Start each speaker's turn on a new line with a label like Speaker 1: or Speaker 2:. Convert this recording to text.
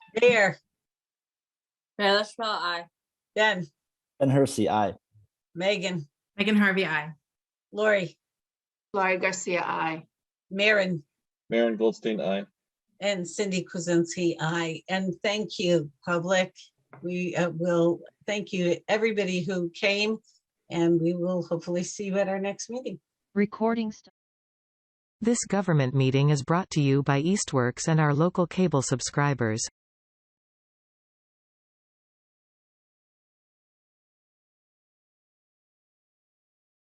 Speaker 1: Mayor,
Speaker 2: Taylor Swift, aye.
Speaker 1: Ben,
Speaker 3: Ben Hersey, aye.
Speaker 1: Megan,
Speaker 4: Megan Harvey, I.
Speaker 1: Lori,
Speaker 5: Laurie Garcia, I.
Speaker 1: Maren,
Speaker 6: Maren Goldstein, aye.
Speaker 1: and Cindy Kuzensky, I. And thank you, public. We uh, will, thank you, everybody who came, and we will hopefully see you at our next meeting.
Speaker 7: Recording stop.
Speaker 8: This government meeting is brought to you by Eastworks and our local cable subscribers.